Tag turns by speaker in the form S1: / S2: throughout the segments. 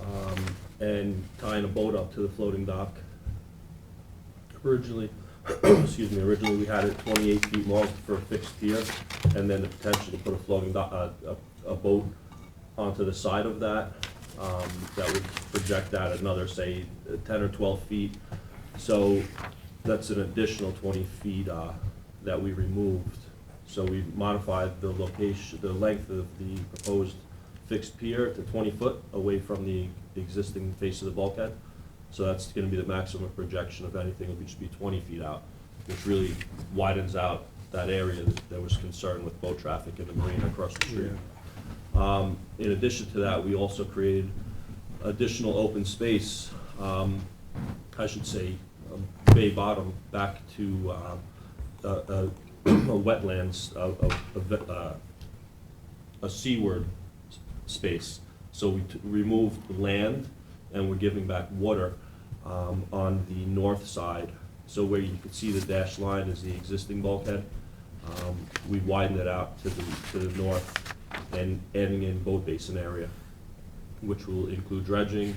S1: um, and tying a boat up to the floating dock. Originally, excuse me, originally we had it twenty-eight feet long for a fixed pier, and then the potential to put a floating dock, a, a, a boat onto the side of that. Um, that would project that another, say, ten or twelve feet. So that's an additional twenty feet, uh, that we removed. So we modified the location, the length of the proposed fixed pier to twenty foot away from the existing face of the bulkhead. So that's gonna be the maximum projection of anything, it'll just be twenty feet out, which really widens out that area that there was concern with boat traffic in the marina across the street. Um, In addition to that, we also created additional open space, um, I should say, um, bay bottom back to um, a a- a wetlands, a- a- a ve- uh, a seaward s- space. So we t- removed land and we're giving back water um, on the north side. So where you can see the dashed line is the existing bulkhead. Um, We widened it out to the, to the north and adding in boat basin area, which will include dredging.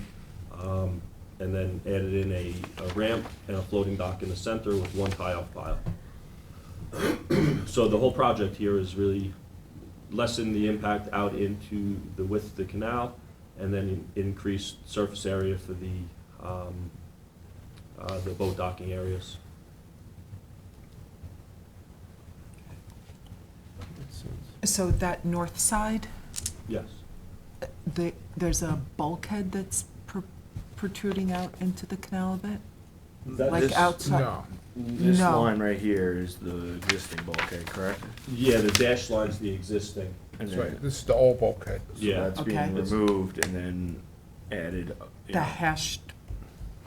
S1: um, And then added in a a ramp and a floating dock in the center with one tie-off pile. So the whole project here is really lessen the impact out into the width of the canal and then in- increase surface area for the, um, uh, the boat docking areas.
S2: So that north side,
S1: Yes,
S2: the, there's a bulkhead that's pr- protruding out into the canal a bit? Like outside?
S3: No,
S4: This
S2: No.
S4: line right here is the existing bulkhead, correct?
S1: yeah, the dash line's the existing,
S4: And
S3: that's
S4: then-
S3: right, this is the old bulkhead.
S4: So
S1: yeah.
S4: that's
S2: Okay.
S4: being removed and then added. uh, you
S2: The
S4: know,
S2: hashed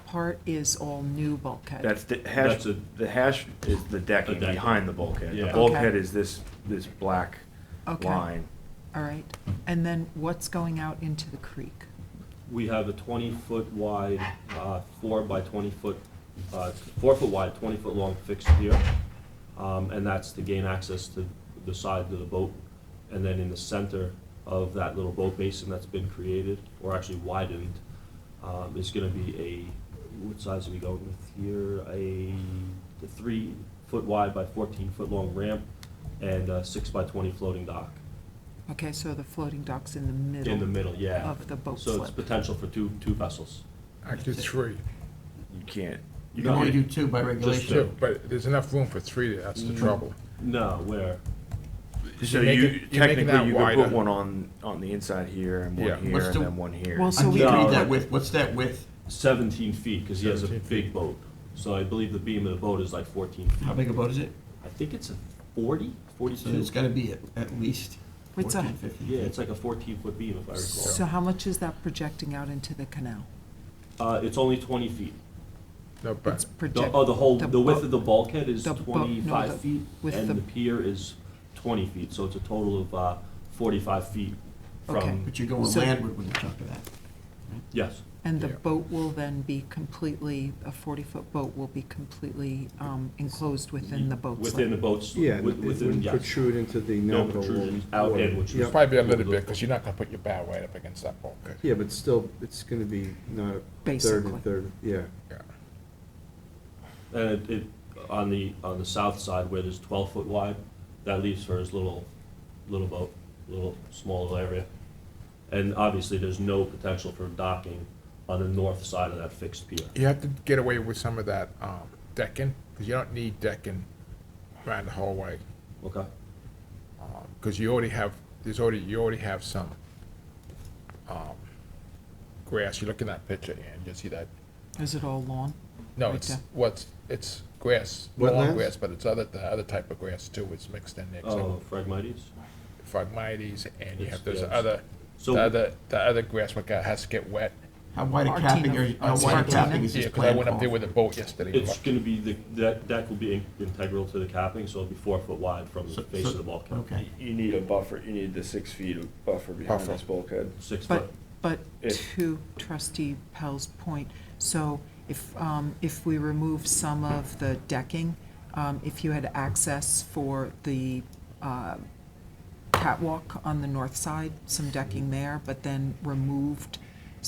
S2: part is all new bulkhead?
S4: That's the
S1: That's
S4: hash,
S1: a-
S4: the hash is the decking
S1: decking.
S4: behind the bulkhead.
S1: Yeah.
S4: The
S1: Okay.
S4: bulkhead is this, this black
S2: Okay, all
S4: line.
S2: right. And then what's going out into the creek?
S1: We have a twenty-foot wide, uh, four by twenty-foot, uh, four-foot wide, twenty-foot long fixed pier. Um, and that's to gain access to the side of the boat. And then in the center of that little boat basin that's been created, or actually widened, um, is gonna be a, what size are we going with here? A three-foot wide by fourteen-foot long ramp and a six by twenty floating dock.
S2: Okay, so the floating dock's in the middle?
S1: In the middle, yeah.
S2: Of the boat
S1: So it's
S2: slip?
S1: potential for two, two vessels.
S3: Actually, three,
S4: You can't, you
S5: You can only
S4: can't,
S5: do two by regulation.
S3: two, but there's enough room for three, that's the trouble.
S1: No, where?
S4: so
S3: you're making- you're
S4: you,
S3: making that
S4: technically you could
S3: wider.
S4: put one on, on the inside here and
S3: Yeah.
S4: one here
S5: What's
S4: and
S5: the-
S4: then one here.
S2: Well,
S5: I
S2: so
S5: need
S2: we,
S5: to
S1: No.
S5: read that width, what's that width?
S1: 17 feet, because he has a
S3: 17
S1: big boat. So I believe the beam of the boat is like 14 feet.
S5: How big a boat is it?
S1: I think it's a 40,
S5: So it's
S1: 42?
S5: gotta be at, at least
S2: What's that?
S5: fourteen, fifteen.
S1: Yeah, it's like a 14-foot beam, if I
S2: so
S1: recall.
S2: how much is that projecting out into the canal?
S1: Uh, It's only 20 feet.
S3: No,
S2: It's
S3: but,
S1: The-
S2: project-
S1: Oh, the whole, the width
S2: bu-
S1: of the bulkhead is
S2: the bu- no, the-
S1: 25 feet,
S2: with
S1: and
S2: the-
S1: the pier is 20 feet, so it's a total of uh, 45 feet
S2: Okay.
S1: from,
S5: But you're going
S2: So-
S5: landward with a chunk of that.
S1: yes,
S2: And the
S3: Yeah.
S2: boat will then be completely, a 40-foot boat will be completely um, enclosed within the boat
S1: within the
S2: slip?
S1: boats.
S6: Yeah,
S1: wi-
S6: it
S1: Within,
S6: wouldn't
S1: yes.
S6: protrude into the
S1: No
S6: nominal.
S1: protrusions out
S6: water.
S1: in, which is.
S6: Yep.
S3: probably a little bit, because you're not gonna put your bow right up against that bulkhead.
S6: Yeah, but still, it's gonna be not a third
S2: Basically.
S6: and third, yeah.
S3: Yeah.
S1: And Uh, it, it, on the, on the south side where there's twelve foot wide, that leaves for his little, little boat, little small area. And obviously, there's no potential for docking on the north side of that fixed pier.
S3: You have to get away with some of that, um, decking, because you don't need decking around the hallway.
S1: Okay?
S3: Because you already have, there's already, you already have some, um, grass, you look in that picture, and you see that,
S2: Is it all lawn?
S3: no,
S2: Right
S3: it's,
S2: there.
S3: what's, it's grass, lawn
S6: Wetlands?
S3: grass, but it's other, the other type of grass too, it's mixed in there. 'cause
S1: Oh, Phragmites?
S3: Phragmites, and you
S1: It's-
S3: have those
S1: yeah, it's-
S3: other, the
S1: So-
S3: other, the other grass what got, has to get wet.
S5: How wide a capping, are-
S2: Martino.
S5: how wide a
S2: Martino.
S5: capping is
S3: Yeah,
S5: this
S3: 'cause I
S5: plan
S3: went up there
S5: called?
S3: with a boat yesterday.
S1: It's gonna be, the, that deck will be in- integral to the capping, so it'll be four foot wide from the
S5: So-
S1: face
S5: so-
S1: of the bulkhead.
S5: Okay.
S4: You need a buffer, you need the six feet of buffer behind
S3: Buffer.
S4: this bulkhead.
S1: Six foot,
S2: But, but
S4: If-
S2: to trustee Pell's point, so if, um, if we remove some of the decking, um, if you had access for the, uh, catwalk on the north side, some decking there, but then removed